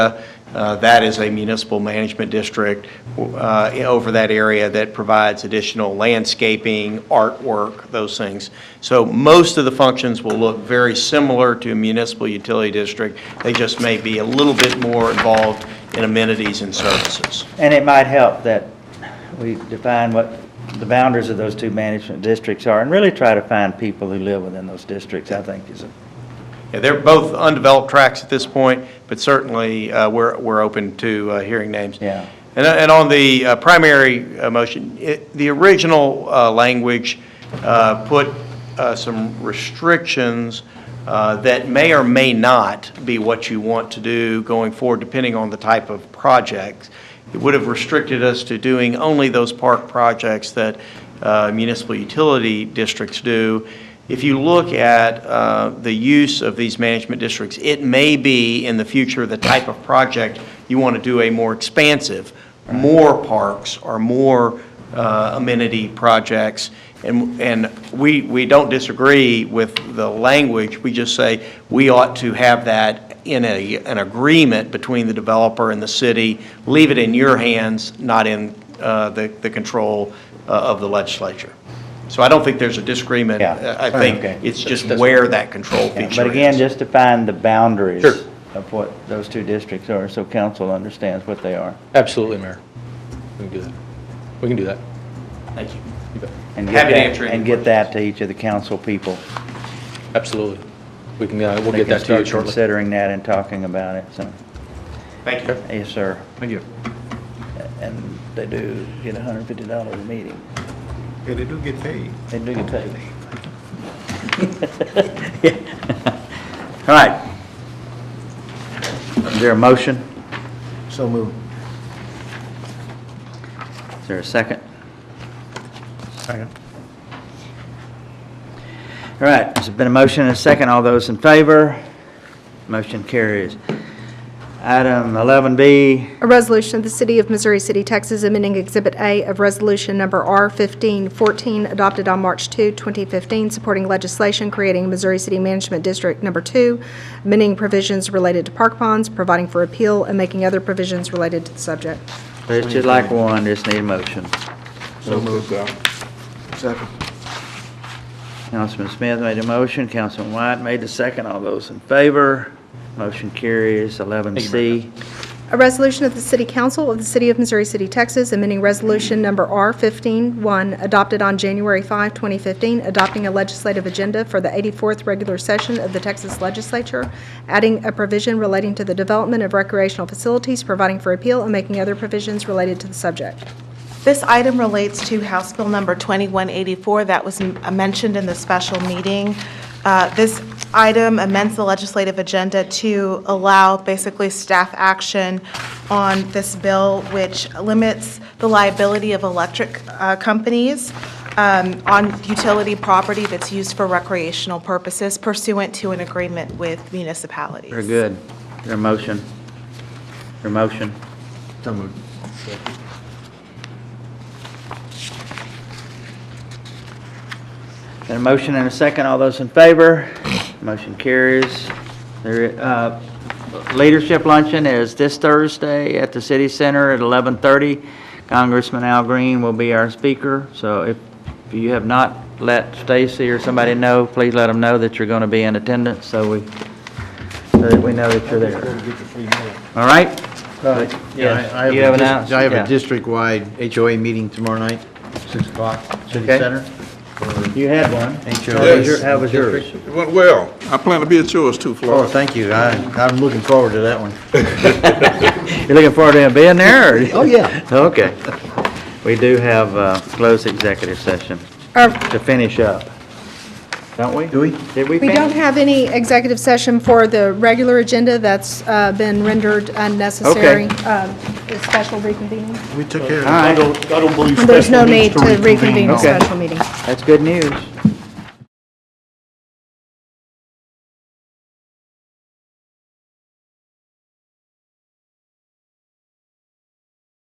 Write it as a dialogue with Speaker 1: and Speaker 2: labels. Speaker 1: Uh, That is a municipal management district uh, over that area that provides additional landscaping, artwork, those things. So most of the functions will look very similar to a municipal utility district. They just may be a little bit more involved in amenities and services.
Speaker 2: And it might help that we define what the boundaries of those two management districts are and really try to find people who live within those districts, I think is, a-
Speaker 1: Yeah, They're both undeveloped tracks at this point, but certainly uh, we're, we're open to uh, hearing names.
Speaker 2: Yeah.
Speaker 1: And, and on the uh, primary uh, motion, it- the original uh, language uh, put uh, some restrictions uh, that may or may not be what you want to do going forward, depending on the type of projects. It would have restricted us to doing only those park projects that uh, municipal utility districts do. If you look at uh, the use of these management districts, it may be in the future the type of project you want to do a more expansive, more parks or more uh, amenity projects. And, and we, we don't disagree with the language, we just say we ought to have that in a, an agreement between the developer and the city. Leave it in your hands, not in uh, the, the control uh, of the legislature. So I don't think there's a disagreement.
Speaker 2: Yeah.
Speaker 1: uh, I think
Speaker 2: Okay.
Speaker 1: it's just where that control feature is.
Speaker 2: but again, just to find the boundaries
Speaker 3: Sure.
Speaker 2: of what those two districts are, so council understands what they are.
Speaker 3: Absolutely, Mayor. We can do that. We can do that.
Speaker 1: Thank you.
Speaker 3: You bet.
Speaker 2: and get
Speaker 1: Happy to
Speaker 2: that-
Speaker 1: answer any
Speaker 2: And get that to each of the council people.
Speaker 3: Absolutely. We can, uh, we'll
Speaker 2: They
Speaker 3: get
Speaker 2: can
Speaker 3: that to you
Speaker 2: start
Speaker 3: shortly.
Speaker 2: Considering that and talking about it, so,
Speaker 1: Thank you.
Speaker 2: yes, sir.
Speaker 4: Thank you.
Speaker 2: And they do get hundred and fifty dollars a meeting.
Speaker 4: Yeah, they do get paid.
Speaker 2: They do get paid. All right. Is there a motion?
Speaker 4: So moved.
Speaker 2: Is there a second?
Speaker 4: Second.
Speaker 2: All right, there's been a motion and a second. All those in favor? Motion carries. Item 11B,
Speaker 5: A resolution of the City of Missouri City, Texas, amending Exhibit A of Resolution Number R-1514, adopted on March 2, 2015, supporting legislation creating Missouri City Management District Number 2, amending provisions related to park bonds, providing for appeal, and making other provisions related to the subject.
Speaker 2: it's just like one, just need a motion.
Speaker 4: So moved. Second.
Speaker 2: Councilman Smith made a motion, Councilman White made the second. All those in favor? Motion carries. 11C.
Speaker 5: A resolution of the City Council of the City of Missouri City, Texas, amending Resolution Number R-15-1, adopted on January 5, 2015, adopting a legislative agenda for the 84th regular session of the Texas Legislature, adding a provision relating to the development of recreational facilities, providing for appeal, and making other provisions related to the subject.
Speaker 6: This item relates to House Bill Number 2184 that was m- uh, mentioned in the special meeting. Uh, This item amends the legislative agenda to allow basically staff action on this bill, which limits the liability of electric uh, companies um, on utility property that's used for recreational purposes pursuant to an agreement with municipalities.
Speaker 2: Very good. Your motion. Your motion.
Speaker 4: So moved.
Speaker 2: Got a motion and a second. All those in favor? Motion carries. There, uh, Leadership Luncheon is this Thursday at the City Center at 11:30. Congressman Al Green will be our speaker, so if you have not let Stacy or somebody know, please let them know that you're going to be in attendance, so we, so that we know that you're
Speaker 4: Go
Speaker 2: there.
Speaker 4: to get the free meal.
Speaker 2: All right?
Speaker 7: Yeah, I- I
Speaker 2: You Uh, have
Speaker 7: a
Speaker 2: an
Speaker 7: dis-
Speaker 2: ounce?
Speaker 7: I have
Speaker 2: Yeah.
Speaker 7: a district-wide HOA meeting tomorrow night, 6 o'clock, City
Speaker 2: Okay.
Speaker 7: Center.
Speaker 2: You had one. How was
Speaker 7: HOA.
Speaker 2: your- how was yours?
Speaker 8: It went well. I plan to be at yours too,
Speaker 7: Oh,
Speaker 8: Florida.
Speaker 7: thank you. I- I'm looking forward to that one.
Speaker 2: You looking forward to him being there, or?
Speaker 7: Oh, yeah.
Speaker 2: Okay. We do have uh closed executive session
Speaker 5: Uh,
Speaker 2: to finish up, don't we?
Speaker 7: Do we?
Speaker 2: Did we
Speaker 5: We
Speaker 2: finish?
Speaker 5: don't have any executive session for the regular agenda that's uh, been rendered unnecessary. um, The special reconvening.
Speaker 4: We took care of it.
Speaker 2: All right,
Speaker 5: There's no need to reconvene a
Speaker 2: Okay.
Speaker 5: special meeting.
Speaker 2: that's good news.